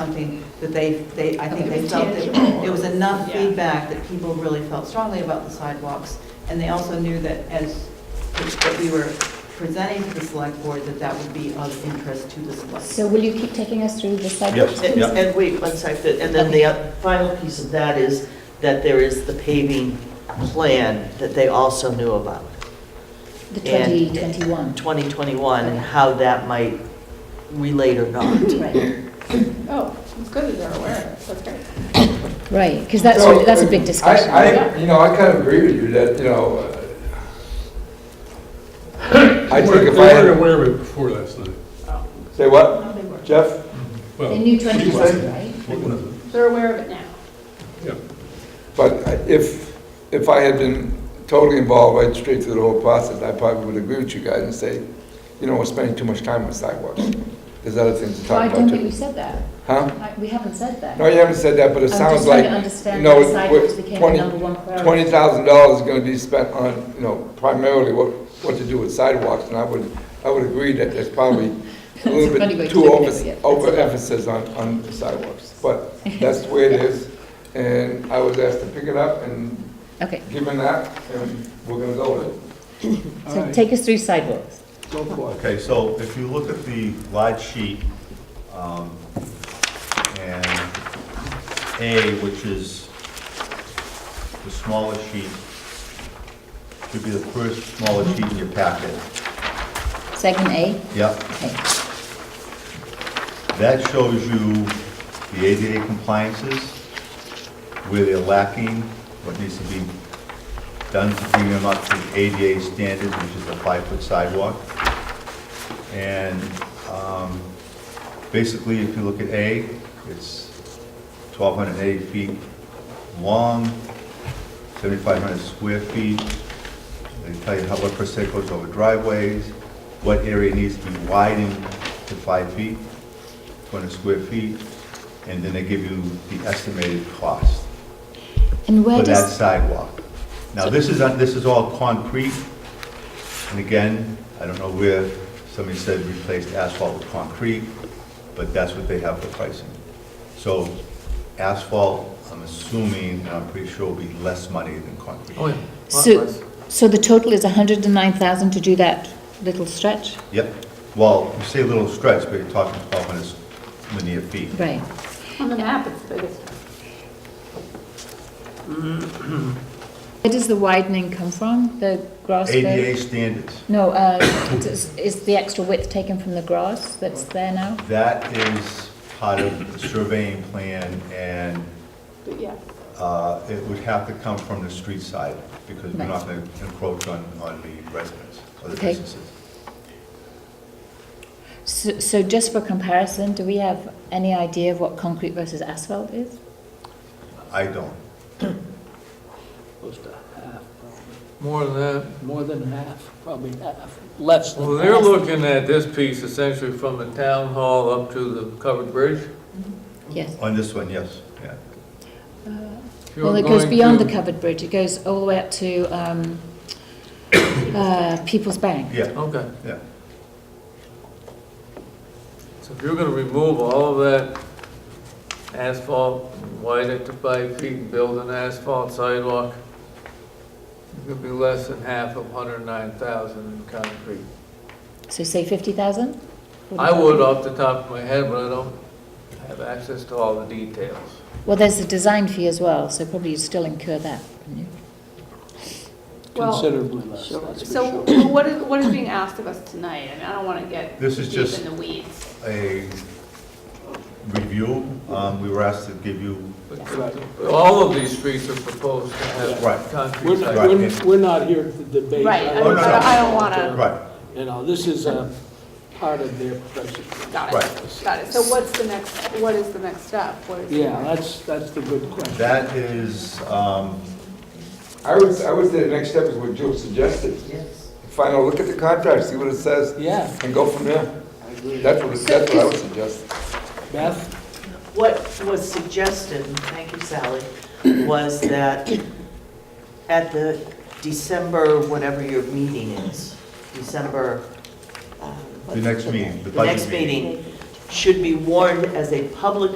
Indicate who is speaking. Speaker 1: something that they, they, I think they
Speaker 2: Something
Speaker 1: felt that
Speaker 2: tangible.
Speaker 1: there was enough
Speaker 2: Yeah.
Speaker 1: feedback that people really felt strongly about the sidewalks, and they also knew that as, that we were presenting to the select board, that that would be of interest to the select.
Speaker 3: So will you keep taking us through the sidewalks?
Speaker 4: Yes,
Speaker 5: And
Speaker 4: yeah.
Speaker 5: and wait, one second, and then the oth- final piece of that is that there is the paving plan that they also knew about,
Speaker 3: The
Speaker 5: And-
Speaker 3: 2021,
Speaker 5: 2021, and how that might relate or not.
Speaker 3: right,
Speaker 2: Oh, it's good that they're aware. That's great.
Speaker 3: right, because that's,
Speaker 6: So,
Speaker 3: that's a big
Speaker 6: I-
Speaker 3: discussion.
Speaker 6: I, you know, I kind of agree with you that, you know, uh, I think if I
Speaker 4: They weren't
Speaker 6: had,
Speaker 4: aware of it before last night.
Speaker 6: say what, Jeff?
Speaker 3: They
Speaker 4: Well, Oh,
Speaker 3: knew
Speaker 6: you
Speaker 3: 2020, right?
Speaker 4: what was it?
Speaker 2: They're aware of it now.
Speaker 4: Yeah.
Speaker 6: But if, if I had been totally involved right straight through the whole process, I probably would agree with you guys and say, you know, we're spending too much time on sidewalks. There's other things to
Speaker 3: Well, I
Speaker 6: talk
Speaker 3: don't
Speaker 6: about
Speaker 3: think we
Speaker 6: too.
Speaker 3: said that.
Speaker 6: Huh?
Speaker 3: I- We haven't said that.
Speaker 6: No, you haven't said that, but it sounds like,
Speaker 3: I'm just
Speaker 6: you
Speaker 3: trying to understand
Speaker 6: know,
Speaker 3: how
Speaker 6: we're-
Speaker 3: sidewalks became the
Speaker 6: 20
Speaker 3: number one priority.
Speaker 6: twenty thousand dollars is gonna be spent on, you know, primarily what, what to do with sidewalks, and I would, I would agree that there's probably a
Speaker 3: It's a
Speaker 6: little
Speaker 3: funny way
Speaker 6: bit
Speaker 3: to
Speaker 6: too
Speaker 3: look at
Speaker 6: over,
Speaker 3: it, yeah. That's a lot.
Speaker 6: overemphasis on, on sidewalks, but that's the way it is. And I was asked to pick it up, and
Speaker 3: Okay,
Speaker 6: given that, and we're gonna go with it.
Speaker 3: so take us through sidewalks.
Speaker 4: Go for
Speaker 7: Okay, so if you look at the large sheet, um, and A, which is the smaller sheet, should be the first smaller sheet in your packet.
Speaker 3: Segment A,
Speaker 7: Yep,
Speaker 3: okay,
Speaker 7: that shows you the ADA compliances, where they're lacking, what needs to be done to bring them up to the ADA standard, which is a five-foot sidewalk. And um, basically, if you look at A, it's 1,280 feet long, 7,500 square feet. They tell you how, what percent goes over driveways, what area needs to be widened to five feet, 200 square feet, and then they give you the estimated cost
Speaker 3: and where
Speaker 7: for that
Speaker 3: does,
Speaker 7: sidewalk. Now, this is, on- this is all concrete, and again, I don't know where, somebody said replaced asphalt with concrete, but that's what they have for pricing. So asphalt, I'm assuming, and I'm pretty sure will be less money than concrete.
Speaker 4: Oh, yeah.
Speaker 3: so, so the total is 109,000 to do that little stretch?
Speaker 7: Yep, well, you say little stretch, but you're talking 1,200 linear feet.
Speaker 3: Right,
Speaker 2: On the map, it's the biggest.
Speaker 3: where does the widening come from, the grass road?
Speaker 7: ADA standards.
Speaker 3: No, uh, does- is the extra width taken from the grass that's there now?
Speaker 7: That is part of the surveying plan, and
Speaker 2: But yeah,
Speaker 7: uh, it would have to come from the street side, because we're not going to encroach on, on the residents or the
Speaker 3: Okay.
Speaker 7: businesses.
Speaker 3: So, so just for comparison, do we have any idea of what concrete versus asphalt is?
Speaker 7: I don't.
Speaker 8: Close to half, probably.
Speaker 9: More than that.
Speaker 8: More than half, probably half, less
Speaker 9: Well,
Speaker 8: than.
Speaker 9: they're looking at this piece essentially from the town hall up to the covered bridge.
Speaker 3: Yes.
Speaker 7: On this one, yes, yeah.
Speaker 9: If you're
Speaker 3: Uh, Well, it goes
Speaker 9: going
Speaker 3: beyond the
Speaker 9: to-
Speaker 3: covered bridge, it goes all the way up to, um, uh, People's Bank.
Speaker 7: Yeah,
Speaker 9: Okay,
Speaker 7: yeah.
Speaker 9: so if you're gonna remove all of that asphalt, widen it to five feet, and build an asphalt sidewalk, it could be less than half of hundred and nine thousand in concrete.
Speaker 3: So say fifty thousand?
Speaker 9: I would off the top of my head, but I don't have access to all the details.
Speaker 3: Well, there's a design fee as well, so probably you'd still incur that, wouldn't you?
Speaker 2: well,
Speaker 8: Considerably less, that's for
Speaker 2: so
Speaker 8: sure.
Speaker 2: what is, what is being asked of us tonight? I mean, I don't want to get
Speaker 7: This is
Speaker 2: deep
Speaker 7: just-
Speaker 2: in the weeds.
Speaker 7: A review, um, we were asked to give you,
Speaker 9: But
Speaker 8: Right.
Speaker 9: but all of these streets are proposed to
Speaker 7: Right.
Speaker 9: have
Speaker 8: We're
Speaker 9: concrete
Speaker 8: not,
Speaker 9: sidewalks.
Speaker 8: we're, we're not here to debate.
Speaker 2: Right, I
Speaker 7: Oh, no,
Speaker 2: don't,
Speaker 7: no.
Speaker 2: I don't want to,
Speaker 7: right,
Speaker 8: You know, this is a part of their profession.
Speaker 2: got it,
Speaker 7: Right.
Speaker 2: got it. So what's the next, what is the next step? What is?
Speaker 8: Yeah, that's, that's the good question.
Speaker 7: that is, um,
Speaker 6: I would, I would say the next step is what Joe suggested.
Speaker 5: Yes.
Speaker 6: Find out, look at the contract, see what it says,
Speaker 8: Yeah,
Speaker 6: and go from there.
Speaker 8: I agree.
Speaker 6: That's what, that's what I would suggest.
Speaker 8: Beth,
Speaker 5: What was suggested, and thank you Sally, was that at the December, whatever your meeting is, December. um,
Speaker 7: the next meeting, the
Speaker 5: The
Speaker 7: budget
Speaker 5: next meeting should be warned as a public